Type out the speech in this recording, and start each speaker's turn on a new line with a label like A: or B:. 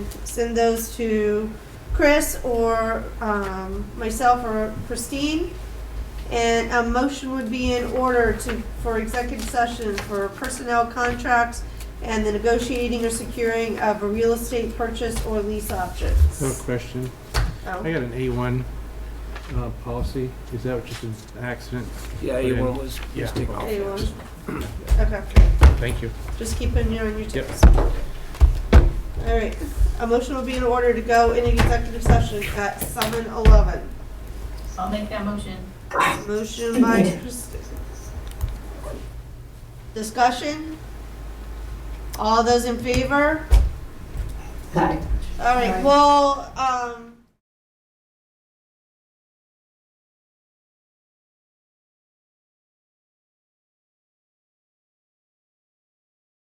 A: send those to Chris or um, myself or Christine. And a motion would be in order to, for executive session for personnel contracts and the negotiating or securing of a real estate purchase or lease
B: I have
A: options.
B: a question.
A: Oh.
B: Hmm. I got an A1 uh, policy. Is that just an accident?
C: Yeah,
B: Put in-
C: A1 was,
B: Yeah.
C: was taken off.
A: A1.
C: Just-
A: Okay,
B: Thank you.
A: just keeping you on your
B: Yep.
A: tips. All right, a motion will be in order to go in executive session at seven eleven.
D: I'll make that motion.
A: Motion by Christi- Discussion? All those in favor?
D: Aye.
A: All right, well, um,